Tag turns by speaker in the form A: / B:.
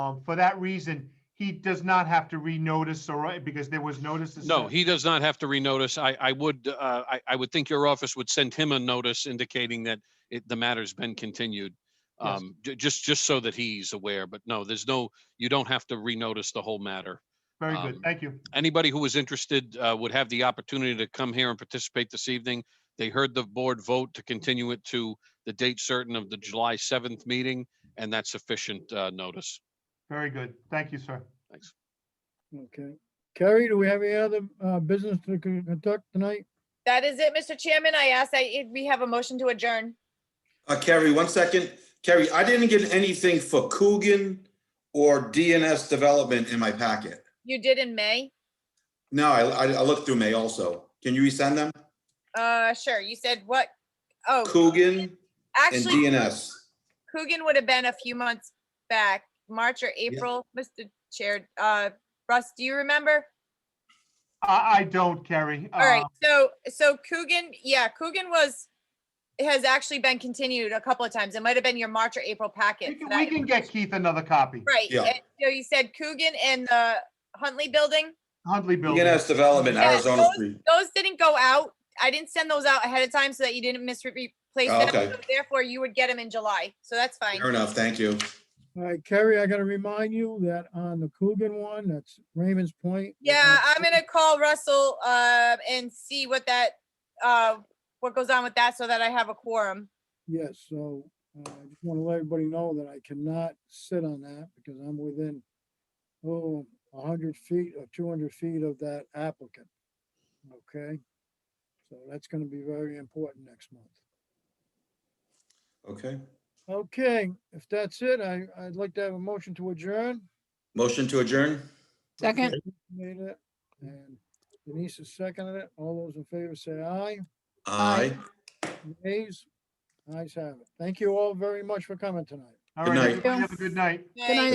A: Um, for that reason, he does not have to renotice or, because there was notices.
B: No,
A: sent.
B: he does not have to renotice. I, I would, uh, I, I would think your office would send him a notice indicating that it, the matter's been continued.
A: Yes.
B: Um, ju- just, just so that he's aware, but no, there's no, you don't have to renotice the whole matter.
A: Very good,
B: um,
A: thank you.
B: Anybody who was interested, uh, would have the opportunity to come here and participate this evening. They heard the board vote to continue it to the date certain of the July seventh meeting, and that's sufficient, uh, notice.
A: Very good, thank you, sir.
B: Thanks.
C: Okay. Carrie, do we have any other uh, business to con- conduct tonight?
D: That is it, Mr. Chairman. I ask that you- we have a motion to adjourn.
E: Uh, Kerry, one second. Kerry, I didn't get anything for Coogan or DNS Development in my packet.
D: You did in May?
E: No, I, I I looked through May also. Can you resend them?
D: Uh, sure. You said what? Oh,
E: Coogan and
D: actually,
E: DNS.
D: Coogan would have been a few months back, March or April, Mr. Chair. Uh, Russ, do you remember?
A: I, I don't, Carrie.
D: All right,
A: Uh,
D: so, so Coogan, yeah, Coogan was, has actually been continued a couple of times. It might have been your March or April
A: We
D: packet.
A: can,
D: that-
A: we can get Keith another copy,
D: Right,
E: Yeah.
D: and so you said Coogan and the Huntley Building?
A: Huntley Building.
E: DNS Development,
D: Yeah,
E: Arizona
D: those-
E: Street.
D: those didn't go out. I didn't send those out ahead of time so that you didn't misreplace them.
E: Okay.
D: So Therefore, you would get them in July. So that's fine.
E: Fair enough, thank you.
C: All right, Carrie, I gotta remind you that on the Coogan one, that's Raymond's Point.
D: Yeah,
C: Mhm.
D: I'm gonna call Russell uh, and see what that, uh, what goes on with that so that I have a quorum.
C: Yes, so uh, I just want to let everybody know that I cannot sit on that because I'm within, oh, a hundred feet or two hundred feet of that applicant. Okay? So that's gonna be very important next month.
E: Okay.
C: Okay, if that's it, I, I'd like to have a motion to adjourn.
E: Motion to adjourn?
F: Second,
C: Made it, and Denise is seconding it. All those in favor say aye.
E: Aye.
C: Nays? Ayes have it. Thank you all very much for coming tonight.
A: All
E: Good
A: right,
E: night.
A: everybody have a good night.
F: night,